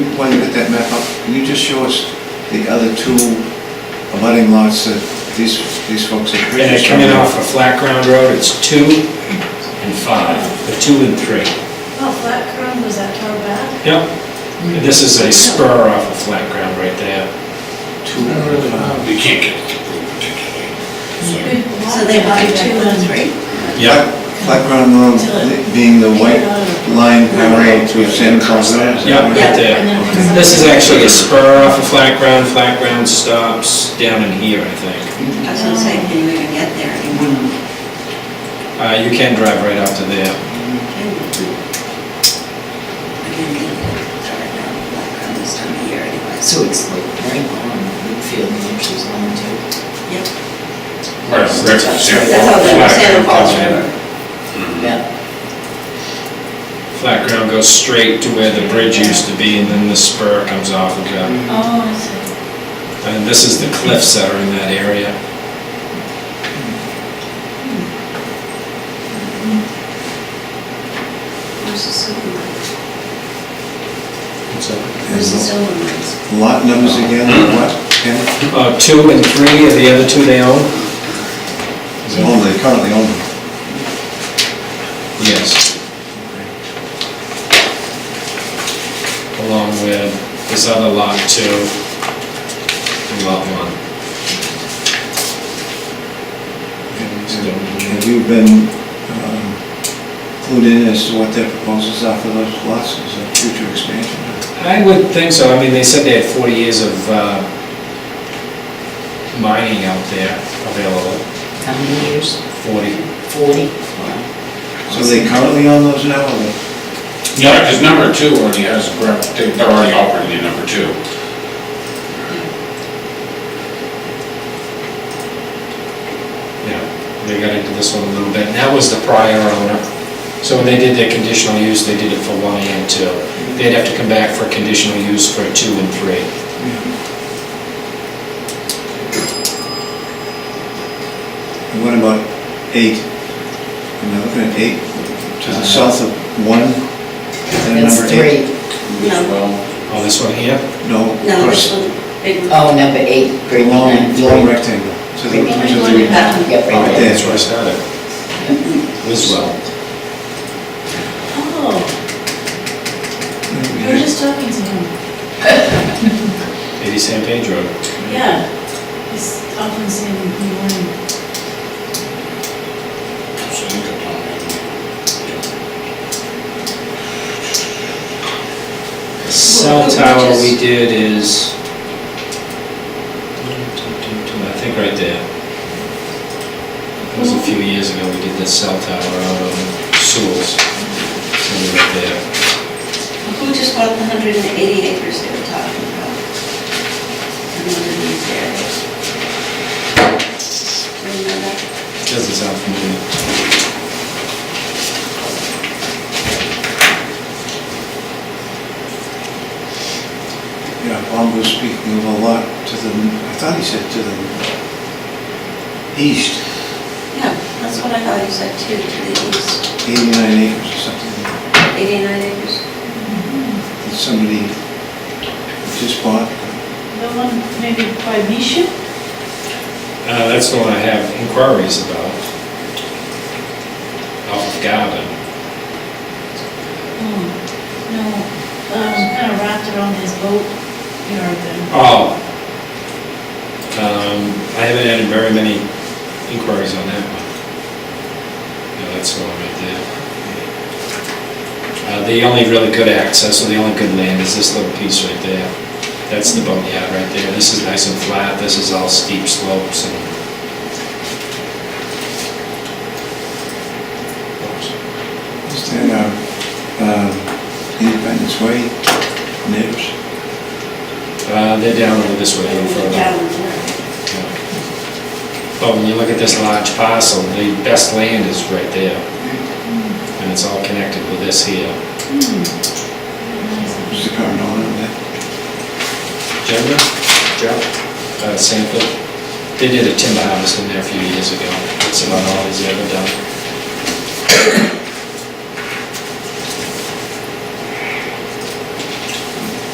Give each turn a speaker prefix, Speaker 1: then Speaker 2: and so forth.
Speaker 1: when you get that map up, can you just show us the other two abutting lots that these, these folks are
Speaker 2: And
Speaker 1: previously...
Speaker 2: they're coming off of Flat Ground Road, it's two and five, or two and three.
Speaker 3: Oh, Flat Crown, was that far back?
Speaker 2: Yep. And This is a spur off of Flat Ground right there.
Speaker 1: Two uh, and five.
Speaker 4: You can't get it particularly.
Speaker 3: So
Speaker 5: So they buy two and three?
Speaker 2: Yep.
Speaker 1: Flat Ground Road being the white line parallel to Santa Claus Road? is that right?
Speaker 2: Yep, right
Speaker 5: And
Speaker 2: there.
Speaker 5: then there's
Speaker 2: This is
Speaker 5: a-
Speaker 2: actually a spur off of Flat Ground, Flat Ground stops down in here, I think.
Speaker 5: I was gonna say, can you even get there? You wouldn't.
Speaker 2: Uh, you can drive right up to there.
Speaker 5: I didn't get it started now, like around this time of year anyway.
Speaker 6: So it's like very long, Woodfield, New Hampshire's long too.
Speaker 5: Yep.
Speaker 4: Right, right, Sam.
Speaker 5: That's how the Santa Falls River.
Speaker 6: Yeah.
Speaker 2: Flat Ground goes straight to where the bridge used to be, and then the spur comes off of that.
Speaker 3: Oh, I see.
Speaker 2: And this is the cliffs that are in that area.
Speaker 5: Where's the silver mines?
Speaker 2: So,
Speaker 5: Where's the silver mines?
Speaker 1: Lot numbers again, what, Ken?
Speaker 2: Uh, two and three are the other two they own?
Speaker 1: Oh, they currently own them.
Speaker 2: Yes. Along with this other lot two and lot one.
Speaker 1: Have you been um, clued in as to what their proposals are for those lots, is there future expansion?
Speaker 2: I would think so, I mean, they said they had 40 years of uh, mining out there available,
Speaker 6: How many years?
Speaker 2: 40.
Speaker 6: Forty? Wow.
Speaker 1: So they currently own those now, or they?
Speaker 4: Yeah, because number two already has, a grab- they- they're already operating in number two.
Speaker 2: Yeah, they got into this one a little bit, and that was the prior owner. So when they did their conditional use, they did it for one and two. They'd have to come back for conditional use for two and three.
Speaker 1: And what about eight? Am I looking at eight, to the south of one, is that
Speaker 6: That's
Speaker 1: number eight?
Speaker 6: three.
Speaker 5: No,
Speaker 4: Well,
Speaker 2: Oh, this one here?
Speaker 1: No,
Speaker 5: no,
Speaker 1: across,
Speaker 5: this one, big one.
Speaker 6: Oh, number eight,
Speaker 1: the
Speaker 6: great
Speaker 1: long,
Speaker 6: line, three.
Speaker 1: long rectangle, to the, to the,
Speaker 5: That one.
Speaker 6: Yep, right there.
Speaker 2: Oh, That's where I started. Liswell.
Speaker 3: Oh, we were just talking to him.
Speaker 2: 80 San Pedro.
Speaker 3: Yeah. He's often seen in the morning.
Speaker 4: so you could tell me.
Speaker 2: Cell tower we did is, I think right there. It was a few years ago, we did the cell tower out on Sewell's, somewhere right there.
Speaker 5: Who just bought the hundred and eighty acres they were talking about? In one of these areas. Do you know that?
Speaker 2: Doesn't sound familiar.
Speaker 1: yeah, Bob was speaking of a lot to the, I thought he said to the east,
Speaker 5: Yeah, that's what I thought you said too, to the east,
Speaker 1: eighty-nine acres or something.
Speaker 5: eighty-nine acres.
Speaker 1: that somebody just bought.
Speaker 3: The one maybe by Misha?
Speaker 2: Uh, that's the one I have inquiries about. Off of Garden.
Speaker 3: Hmm, No, um, kind of wrapped around his boat yard then.
Speaker 2: Oh. Um, I haven't had very many inquiries on that one. Yeah, that's the one right there. Uh, the only really good access, or the only good land is this little piece right there. That's the boneyard right there. This is nice and flat, this is all steep slopes and.
Speaker 1: Is that our um, uh, Independence Way neighbors?
Speaker 2: Uh, they're down over this way a little further.
Speaker 5: Down there.
Speaker 2: But when you look at this large parcel, the best land is right there. And it's all connected with this here.
Speaker 5: Mm-hmm.
Speaker 3: Nice.
Speaker 1: Who's the current owner of that?
Speaker 2: Jenga? Joe? Uh, Sanford. They did a timber harvest in there a few years ago. That's about all he's ever done.